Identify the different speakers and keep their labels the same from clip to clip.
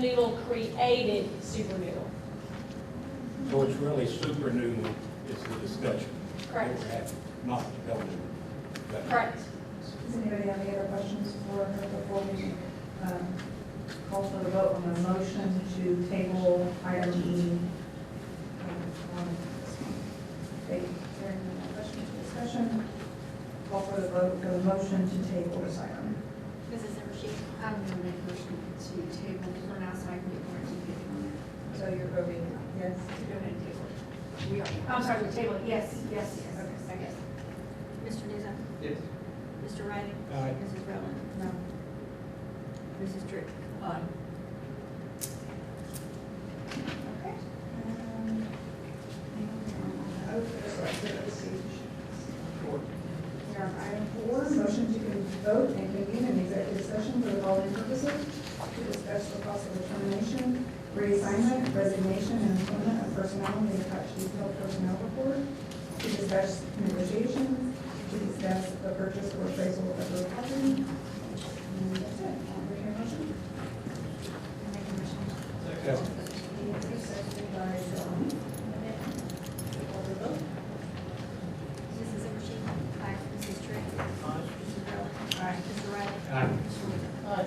Speaker 1: Noodle created Super Noodle,
Speaker 2: So it's really super new is the discussion.
Speaker 1: Correct.
Speaker 2: That we're having, Not the government.
Speaker 1: correct?
Speaker 3: Does anybody have any other questions for her before we um, call for the vote on the motion to table item E? um, on- Okay, hearing no more questions or discussion, call for the vote, the motion to table this item.
Speaker 4: Mrs. Zimmershed? I'm going to make a motion to table for now so I can get more detail on it.
Speaker 3: So you're voting yes?
Speaker 4: To go ahead and table it. We are, I'm sorry, we table it, yes, yes, yes, okay, second.
Speaker 5: Mr. Newsom?
Speaker 6: Yes.
Speaker 5: Mr. Riley?
Speaker 2: Aye.
Speaker 5: Mrs. Rowland? No. Mrs. Trick? Aye.
Speaker 3: Okay. Um, and, uh, okay, so I did it. We are on item four, motion to vote and convene an executive session for the following purposes: to discuss the possible termination, reassignment, resignation, and employment of personnel in the Apache Hill Personnel Report, to discuss negotiations, to discuss the purchase or appraisal of real property. And that's it. I'll entertain a motion.
Speaker 4: Make a motion.
Speaker 3: Seconded by Dawn. Call the vote.
Speaker 5: Mrs. Zimmershed? Aye. Mrs. Trick? Aye. Mrs. Rowland?
Speaker 3: Aye.
Speaker 5: Mr. Riley?
Speaker 2: Aye.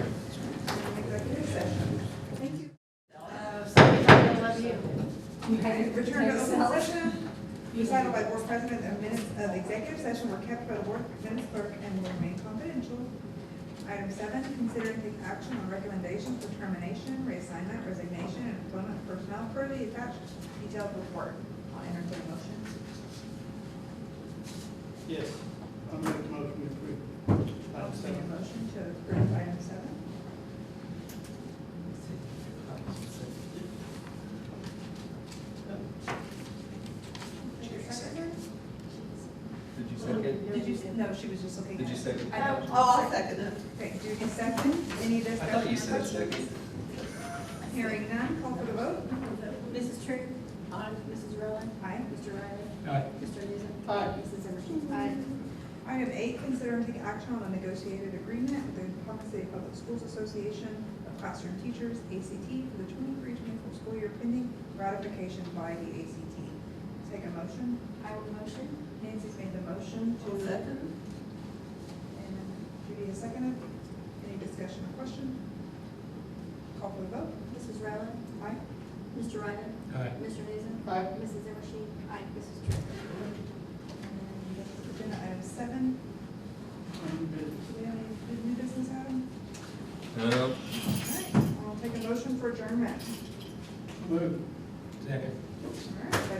Speaker 5: Mr. Newsom?
Speaker 3: Executive session. Thank you.
Speaker 4: Uh, sorry, I love you.
Speaker 3: Okay, return to open session. Decided by board president of minutes of executive session were kept by the board minutes clerk and will remain confidential. Item seven, consider and take action on recommendations for termination, reassignment, resignation, and employment of personnel per the attached detailed report. I'll entertain a motion.
Speaker 6: Yes. I'll make the motion to approve. Item
Speaker 3: Make a
Speaker 6: seven.
Speaker 3: motion to approve item seven.
Speaker 7: Did you second?
Speaker 3: Did you, no, she was just looking.
Speaker 7: Did you second?
Speaker 3: I know. Oh, I'll second it. Okay, do you second? Any
Speaker 7: I
Speaker 3: discussion?
Speaker 7: thought you
Speaker 3: or
Speaker 7: said
Speaker 3: questions?
Speaker 7: second.
Speaker 3: Hearing none, call for the vote.
Speaker 5: Mrs. Trick? Aye. Mrs. Rowland?
Speaker 3: Aye.
Speaker 5: Mr. Riley?
Speaker 2: Aye.
Speaker 5: Mr. Newsom? Aye. Mrs. Zimmershed?
Speaker 4: Aye.
Speaker 3: Item eight, consider and take action on a negotiated agreement with the Oklahoma City Public Schools Association of Classroom Teachers, ACT, for the 23-24 school year pending ratification by the ACT. Take a motion.
Speaker 4: I will motion.
Speaker 3: Nancy's made the motion to. second. And Judy has seconded. Any discussion or question? Call for the vote.
Speaker 5: Mrs. Rowland?
Speaker 3: Aye.
Speaker 5: Mr. Riley?
Speaker 2: Aye.
Speaker 5: Mr. Newsom?
Speaker 6: Aye.
Speaker 5: Mrs. Zimmershed? Aye. Mrs. Trick?
Speaker 3: And Agenda item seven, do we have any new business item?
Speaker 7: No.
Speaker 3: All right, I'll take a motion for adjournment.
Speaker 6: Move.
Speaker 2: Second.
Speaker 3: All right, uh, that